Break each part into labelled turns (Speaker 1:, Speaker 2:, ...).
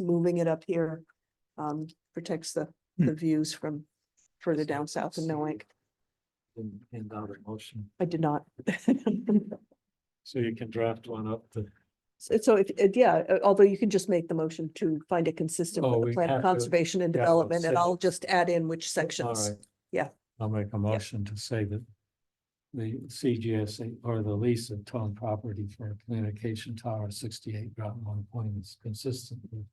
Speaker 1: moving it up here um protects the
Speaker 2: Hmm.
Speaker 1: the views from further down south in Millbank.
Speaker 2: And, and got a motion,
Speaker 1: I did not.
Speaker 2: so you can draft one up to.
Speaker 1: So so if, if- yeah, uh, although you can just make the motion to find it consistent
Speaker 2: Oh,
Speaker 1: with
Speaker 2: we
Speaker 1: the plan
Speaker 2: have
Speaker 1: of
Speaker 2: to-
Speaker 1: conservation and
Speaker 2: yeah, I'll
Speaker 1: development, and
Speaker 2: say-
Speaker 1: I'll just add in which sections.
Speaker 2: Alright.
Speaker 1: Yeah.
Speaker 2: I'll make a motion to say that the CGS or the lease of town property for a communication tower sixty-eight Groton One Point is consistent with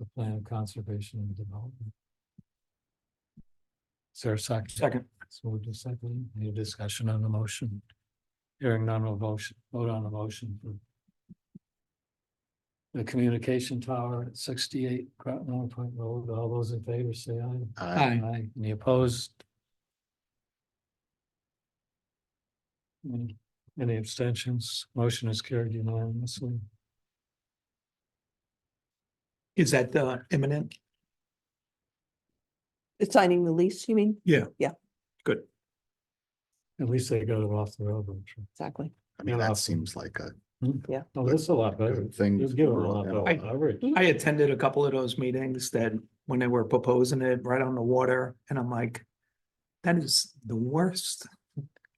Speaker 2: the plan of conservation and development. Is there a second? Second. So we'll just second, any discussion on the motion? Hearing none, will motion, vote on the motion for the communication tower at sixty-eight Groton One Point Road. All those in favor say aye.
Speaker 3: Aye.
Speaker 2: Aye. Any opposed? Any- Any abstentions? Motion is carried unanimously.
Speaker 3: Is that uh, imminent?
Speaker 1: It's Signing the lease, you mean?
Speaker 2: At least they got it off the railroad track.
Speaker 1: Exactly.
Speaker 4: I mean,
Speaker 2: Yeah.
Speaker 4: that seems like a
Speaker 2: Oh, that's a lot better.
Speaker 4: good thing.
Speaker 2: Just give them a
Speaker 4: for
Speaker 2: lot
Speaker 4: them.
Speaker 2: better coverage.
Speaker 3: I attended a couple of those meetings that when they were proposing it right on the water and I'm like, that is the worst,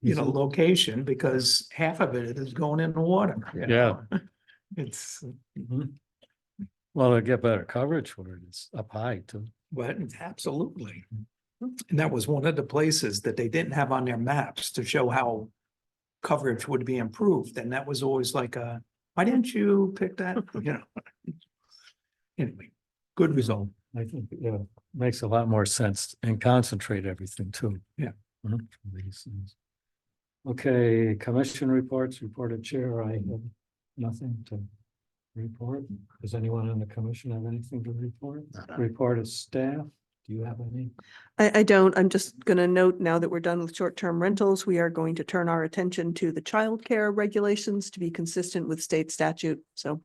Speaker 3: you know, location because half of it is going in the water. you
Speaker 2: Yeah.
Speaker 3: know? It's,
Speaker 2: Mhm. Well, they get better coverage where it's up high too.
Speaker 3: but it's absolutely. And that was one of the places that they didn't have on their maps to show how coverage would be improved. And that was always like a, why didn't you pick that, you know? Anyway, good result.
Speaker 2: I think, yeah, makes a lot more sense and concentrate everything too.
Speaker 3: Yeah.
Speaker 2: Mhm, for these things. Okay, commission reports, reported chair, I have nothing to report. Does anyone on the commission have anything to report?
Speaker 4: Not a-
Speaker 2: Report of staff, do you have any?
Speaker 1: I, I don't, I'm just gonna note now that we're done with short-term rentals, we are going to turn our attention to the childcare regulations to be consistent with state statute. So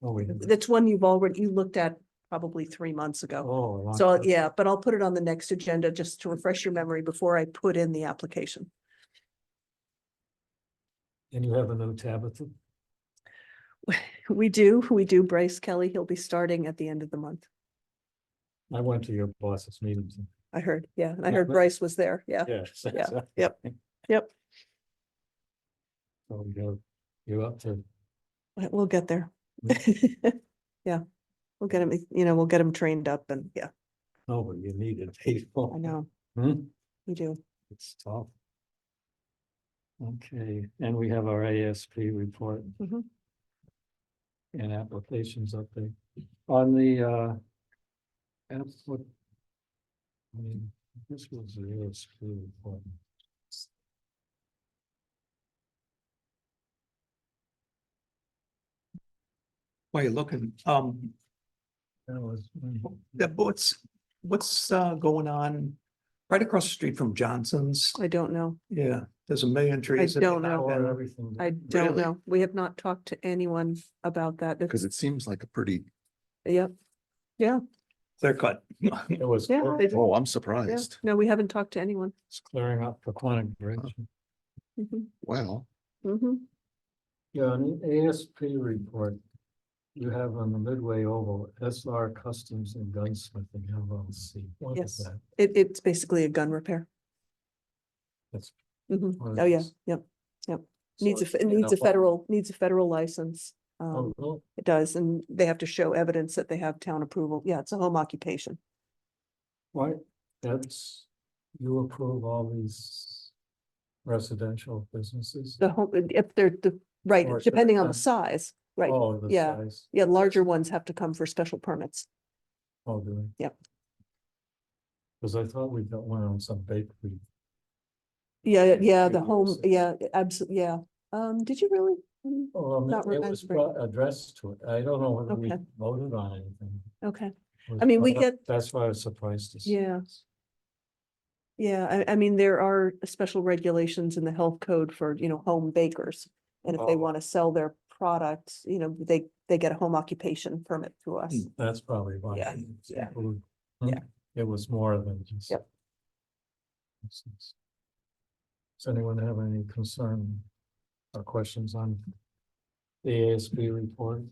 Speaker 2: Oh, we did.
Speaker 1: that's one you've already, you looked at probably three months ago.
Speaker 2: Oh, I
Speaker 1: So, I'll-
Speaker 2: like that.
Speaker 1: yeah, but I'll put it on the next agenda just to refresh your memory before I put in the application.
Speaker 2: And you have a new Tabitha?
Speaker 1: We do, we do Bryce Kelly. He'll be starting at the end of the month.
Speaker 2: I went to your boss's meetings.
Speaker 1: I heard, yeah, and I
Speaker 2: Yeah,
Speaker 1: heard
Speaker 2: but-
Speaker 1: Bryce was there, yeah.
Speaker 2: Yes.
Speaker 1: yep, yep.
Speaker 2: So you're, you're up to,
Speaker 1: But We'll get there. Yeah, we'll get him, you know, we'll get him trained up and, yeah,
Speaker 2: oh, but you needed people.
Speaker 1: I know,
Speaker 2: Hmm?
Speaker 1: we do.
Speaker 2: It's tough. Okay, and we have our ASP report.
Speaker 1: Mhm.
Speaker 2: And applications update on the uh. appli- I mean, this was the ASP report.
Speaker 3: While you're looking, um,
Speaker 2: That was.
Speaker 3: the what's, what's uh going on? Right across the street from Johnson's,
Speaker 1: I don't know.
Speaker 3: yeah, there's a million trees. that they
Speaker 1: don't know.
Speaker 3: knocked down.
Speaker 2: Everything.
Speaker 1: I don't
Speaker 3: Really?
Speaker 1: know. We have not talked to anyone about that.
Speaker 4: Cause it seems like a pretty,
Speaker 1: Yep.
Speaker 3: Clear cut.
Speaker 2: It was
Speaker 1: Yeah,
Speaker 2: clear-
Speaker 1: they do.
Speaker 4: oh, I'm
Speaker 1: Yeah.
Speaker 4: surprised.
Speaker 1: No, we haven't talked to anyone.
Speaker 2: it's clearing up for Quonic Bridge.
Speaker 1: Mhm,
Speaker 4: Well,
Speaker 1: mhm.
Speaker 2: Yeah, an ASP report. You have on the Midway Oval, SR Customs and Gunsmithing LLC. What is
Speaker 1: Yes.
Speaker 2: that?
Speaker 1: It, it's basically a gun repair.
Speaker 2: That's
Speaker 1: Mhm.
Speaker 2: what it
Speaker 1: Oh, yeah,
Speaker 2: is.
Speaker 1: yep. Needs a,
Speaker 2: So
Speaker 1: fe- it
Speaker 2: you
Speaker 1: needs a
Speaker 2: know,
Speaker 1: federal, needs a federal license. Um,
Speaker 2: oh, well,
Speaker 1: It does, and they have to show evidence that they have town approval. Yeah, it's a home occupation.
Speaker 2: Why, that's, you approve all these residential businesses?
Speaker 1: The home, uh, if they're, the, right,
Speaker 2: Or is there a
Speaker 1: depending on the
Speaker 2: fence?
Speaker 1: size, right.
Speaker 2: Oh, the
Speaker 1: yeah.
Speaker 2: size,
Speaker 1: Yeah, larger ones have to come for special permits.
Speaker 2: oh, do they?
Speaker 1: Yep.
Speaker 2: Cause I thought we got one on some bakery.
Speaker 1: Yeah,
Speaker 2: Yeah,
Speaker 1: yeah, the
Speaker 2: maybe
Speaker 1: home,
Speaker 2: so.
Speaker 1: yeah, absolutely, yeah. Um, did you really? Mm,
Speaker 2: Oh, I mean,
Speaker 1: Not
Speaker 2: it was
Speaker 1: remembering.
Speaker 2: brought- addressed to it. I don't know whether we
Speaker 1: Okay.
Speaker 2: voted on anything.
Speaker 1: Okay,
Speaker 2: It was
Speaker 1: I mean, we
Speaker 2: brought up-
Speaker 1: get-
Speaker 2: That's why I was surprised to see.
Speaker 1: Yeah.
Speaker 2: this.
Speaker 1: yeah, I, I mean, there are special regulations in the health code for, you know, home bakers. And if they
Speaker 2: Oh.
Speaker 1: want to sell their products, you know, they, they get a home occupation permit through us.
Speaker 3: Mm.
Speaker 2: That's probably why.
Speaker 1: Yeah,
Speaker 2: it's
Speaker 1: yeah.
Speaker 2: included.
Speaker 1: Yeah.
Speaker 2: It was more than just.
Speaker 1: Yep.
Speaker 2: Makes sense. Does anyone have any concern or questions on the ASB report?